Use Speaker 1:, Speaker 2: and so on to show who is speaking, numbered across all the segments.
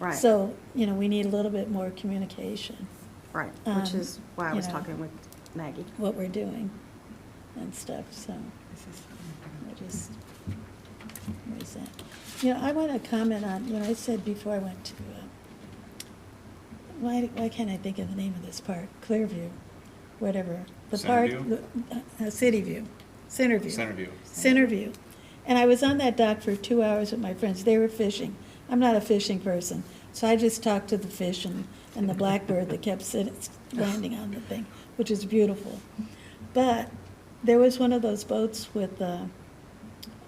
Speaker 1: Right.
Speaker 2: So, you know, we need a little bit more communication,
Speaker 1: Right, which
Speaker 2: Um,
Speaker 1: is why I
Speaker 2: you
Speaker 1: was
Speaker 2: know.
Speaker 1: talking with Maggie.
Speaker 2: what we're doing and stuff, so I just raise that. You know, I want to comment on, you know, I said before I went to, uh, why, why can't I think of the name of this park? Clearview, whatever. The park,
Speaker 3: Centerview?
Speaker 2: the- uh, City View, Centerview.
Speaker 3: Centerview.
Speaker 2: Centerview. And I was on that dock for two hours with my friends. They were fishing. I'm not a fishing person. So I just talked to the fish and, and the blackbird that kept sitting, landing on the thing, which is beautiful. But there was one of those boats with the,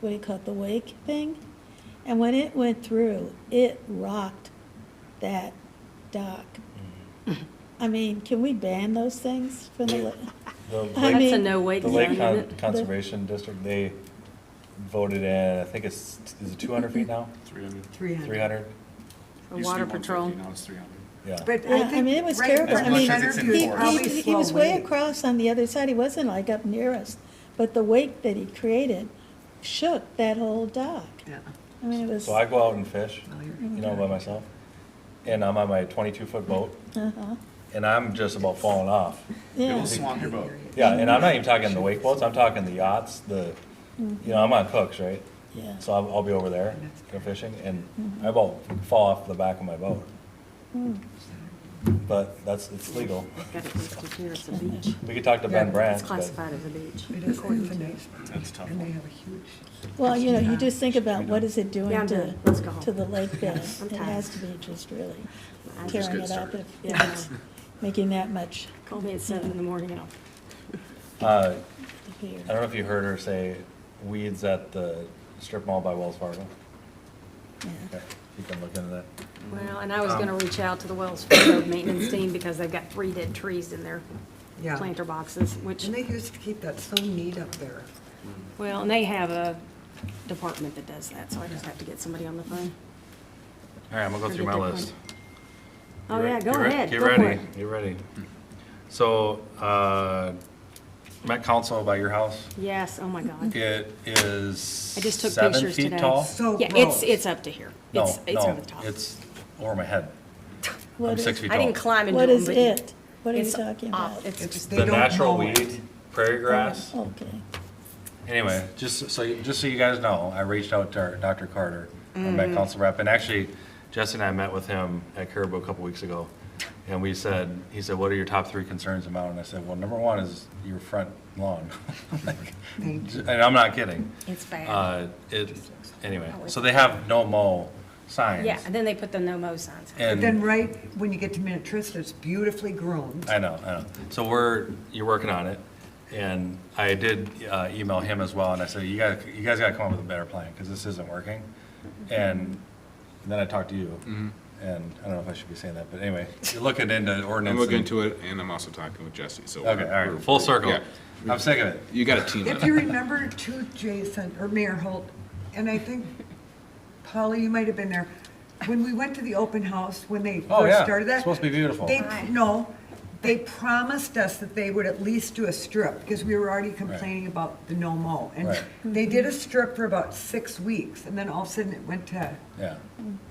Speaker 2: what do you call it, the wake thing? And when it went through, it rocked that dock. I mean, can we ban those things from the, li-
Speaker 4: The
Speaker 2: I
Speaker 4: Lake,
Speaker 5: That's a
Speaker 2: mean-
Speaker 5: no wake
Speaker 4: the
Speaker 5: zone,
Speaker 4: Lake
Speaker 5: isn't
Speaker 4: Con-
Speaker 5: it?
Speaker 4: Conservation District, they voted in, I think it's, is it two hundred feet now?
Speaker 3: Three hundred.
Speaker 6: Three hundred.
Speaker 4: Three hundred?
Speaker 5: Or water patrol.
Speaker 3: Now it's three hundred.
Speaker 4: Yeah.
Speaker 6: But I
Speaker 2: Yeah, I
Speaker 6: think.
Speaker 2: mean, it was
Speaker 6: right
Speaker 2: terrible.
Speaker 6: from
Speaker 2: I mean,
Speaker 3: As much as it's
Speaker 6: Centerview,
Speaker 2: he,
Speaker 3: enforced.
Speaker 6: probably
Speaker 2: he, he
Speaker 6: slow
Speaker 2: was way
Speaker 6: wave.
Speaker 2: across on the other side. He wasn't like up near us. But the wake that he created shook that whole dock.
Speaker 6: Yeah.
Speaker 2: I mean, it was,
Speaker 4: So I go out and fish,
Speaker 6: Well, you're-
Speaker 4: you know, by myself, and I'm on my twenty-two foot boat,
Speaker 2: uh-huh,
Speaker 4: and I'm just about falling off.
Speaker 3: It
Speaker 2: yeah.
Speaker 3: will swamp your boat.
Speaker 4: Yeah, and I'm not even talking the wake boats, I'm talking the yachts, the, you know, I'm on Cooks, right?
Speaker 2: Mm-hmm. Yeah.
Speaker 4: So I'll, I'll be over there, go fishing, and I about fall off the back of my boat.
Speaker 2: Mm.
Speaker 4: But that's, it's legal.
Speaker 5: Got it listed here as a beach.
Speaker 4: We could talk to Ben Brandt,
Speaker 5: It's
Speaker 4: but.
Speaker 5: classified as a beach.
Speaker 6: It is infinite,
Speaker 3: That's a tough.
Speaker 6: and they
Speaker 3: one.
Speaker 6: have a huge.
Speaker 2: Well, you know, you just think about what is it
Speaker 5: Yeah,
Speaker 2: doing
Speaker 5: I'm
Speaker 2: to,
Speaker 5: done. Let's go home.
Speaker 2: to the lake bed.
Speaker 5: I'm
Speaker 2: It
Speaker 5: tired.
Speaker 2: has to be just really
Speaker 5: I just
Speaker 2: tearing
Speaker 3: get
Speaker 2: it up
Speaker 3: started.
Speaker 2: if if
Speaker 5: Yeah.
Speaker 2: it's making that much
Speaker 5: Call me at seven in the morning and I'll.
Speaker 4: Uh,
Speaker 2: here.
Speaker 4: I don't know if you heard her say weeds at the strip mall by Wells Fargo.
Speaker 2: Yeah.
Speaker 4: Okay, You can look into that.
Speaker 5: Well, and I was
Speaker 4: Um.
Speaker 5: gonna reach out to the Wells Fargo maintenance team because they've got three dead trees in their
Speaker 6: Yeah.
Speaker 5: planter boxes, which,
Speaker 6: And they used to keep that so neat up there.
Speaker 5: well, and they have a department that does that, so I just have to get somebody on the phone.
Speaker 4: All right, I'm gonna go through my
Speaker 5: Ridiculous.
Speaker 4: list.
Speaker 5: Oh,
Speaker 4: Get re-
Speaker 5: yeah, go
Speaker 4: get re-
Speaker 5: ahead.
Speaker 4: Get
Speaker 5: Go for
Speaker 4: ready,
Speaker 5: it.
Speaker 4: get ready. So, uh, Met Council by your house,
Speaker 5: Yes, oh my God.
Speaker 4: it is
Speaker 5: I just took
Speaker 4: seven
Speaker 5: pictures
Speaker 4: feet
Speaker 5: today.
Speaker 4: tall?
Speaker 6: So
Speaker 5: Yeah, it's,
Speaker 6: gross.
Speaker 5: it's up to here.
Speaker 4: No,
Speaker 5: It's, it's over
Speaker 4: no,
Speaker 5: the top.
Speaker 4: it's over my head.
Speaker 2: What
Speaker 4: I'm
Speaker 2: is-
Speaker 4: six feet
Speaker 5: I
Speaker 4: tall.
Speaker 5: didn't climb into
Speaker 2: What
Speaker 5: them,
Speaker 2: is
Speaker 5: but.
Speaker 2: it? What are you
Speaker 5: it's
Speaker 2: talking
Speaker 5: off.
Speaker 2: about?
Speaker 5: It's
Speaker 6: It's-
Speaker 5: just,
Speaker 6: they
Speaker 4: The
Speaker 6: don't
Speaker 4: natural
Speaker 6: mow it.
Speaker 4: weed, prairie grass.
Speaker 2: Okay.
Speaker 4: Anyway, just so, you- just so you guys know, I reached out to our- Dr. Carter, our
Speaker 5: Mm-hmm.
Speaker 4: Met Council rep, and actually, Jesse and I met with him at Caribou a couple weeks ago. And we said, he said, what are your top three concerns about? And I said, well, number one is your front lawn. Like, And I'm not kidding.
Speaker 5: it's bad.
Speaker 4: Uh, it, anyway, so they have no mow signs.
Speaker 5: Yeah, and then they put the no mow signs.
Speaker 6: But then
Speaker 4: And,
Speaker 6: right when you get to Minnetrista, it's beautifully grown.
Speaker 4: I know, I know. So we're, you're working on it. And I did uh, email him as well, and I said, you guys, you guys gotta come up with a better plan, because this isn't working. And then I talked to you, and I don't know if I should be saying that, but anyway, you're looking into
Speaker 7: Mm-hmm. I'm
Speaker 4: ordinance.
Speaker 7: looking
Speaker 4: and-
Speaker 7: into it, and I'm also talking with Jesse, so.
Speaker 4: Okay, all
Speaker 7: we're-
Speaker 4: right, full circle.
Speaker 7: yeah.
Speaker 4: I'm sick of it.
Speaker 7: You got a team.
Speaker 6: If you remember too, Jason, or Mayor Holt, and I think, Paula, you might have been there, when we went to the open house, when they
Speaker 4: Oh, yeah.
Speaker 6: first started that.
Speaker 4: It's supposed to be beautiful.
Speaker 6: They, no, they promised us that they would at least do a strip, because we were already complaining about the no mow. And
Speaker 4: Right.
Speaker 6: they did a strip for about six weeks, and then all of a sudden it went to,
Speaker 4: Yeah.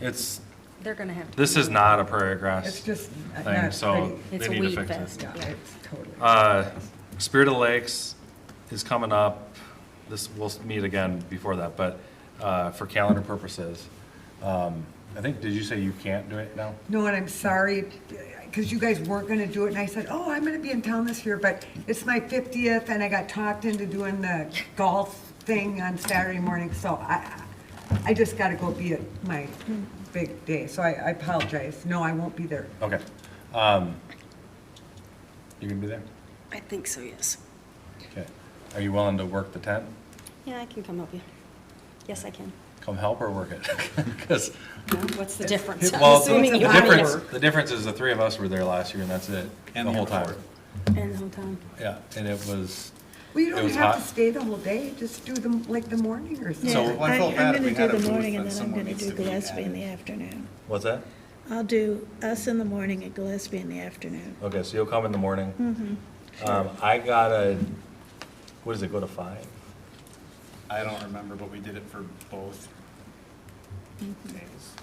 Speaker 4: It's,
Speaker 5: They're gonna have to.
Speaker 4: this is not a prairie grass.
Speaker 6: it's just not
Speaker 4: Thing,
Speaker 6: pretty.
Speaker 4: so
Speaker 5: It's
Speaker 4: they
Speaker 5: a
Speaker 4: need to
Speaker 5: weed
Speaker 4: fix
Speaker 5: fest.
Speaker 4: it.
Speaker 6: Yeah, it's totally.
Speaker 4: Uh, Spirit of the Lakes is coming up. This, we'll meet again before that, but uh, for calendar purposes. Um, I think, did you say you can't do it now?
Speaker 6: No, and I'm sorry, because you guys weren't gonna do it, and I said, oh, I'm gonna be in town this year, but it's my fiftieth, and I got talked into doing the golf thing on Saturday morning, so I, I just gotta go be at my big day, so I, I apologize. No, I won't be there.
Speaker 4: Okay. Um, You gonna be there?
Speaker 5: I think so, yes.
Speaker 4: Okay. Are you willing to work the tent?
Speaker 5: Yeah, I can come help you. Yes, I can.
Speaker 4: Come help or work it? Because,
Speaker 5: No, What's the difference? I'm
Speaker 4: well,
Speaker 5: assuming
Speaker 4: the
Speaker 5: you want me to-
Speaker 4: difference, the difference is the three of us were there last year and that's it. The whole time.
Speaker 5: And the whole time.
Speaker 4: Yeah, and it was,
Speaker 6: Well, you
Speaker 4: It
Speaker 6: don't
Speaker 4: was
Speaker 6: have to
Speaker 4: hot.
Speaker 6: stay the whole day, just do them, like, the morning or something.
Speaker 3: So
Speaker 2: Yeah,
Speaker 3: I
Speaker 2: I-
Speaker 3: felt
Speaker 2: I'm
Speaker 3: bad if
Speaker 2: gonna
Speaker 3: we
Speaker 2: do
Speaker 3: had
Speaker 2: the
Speaker 3: a booth,
Speaker 2: morning,
Speaker 3: then
Speaker 2: and then I'm
Speaker 3: someone
Speaker 2: gonna
Speaker 3: needs
Speaker 2: do
Speaker 3: to be
Speaker 2: Gillespie in
Speaker 3: added.
Speaker 2: the afternoon.
Speaker 4: what's that?
Speaker 2: I'll do us in the morning at Gillespie in the afternoon.
Speaker 4: Okay, so you'll come in the morning? Um, I gotta, what does it go to five?
Speaker 3: I don't remember, but we did it for both days.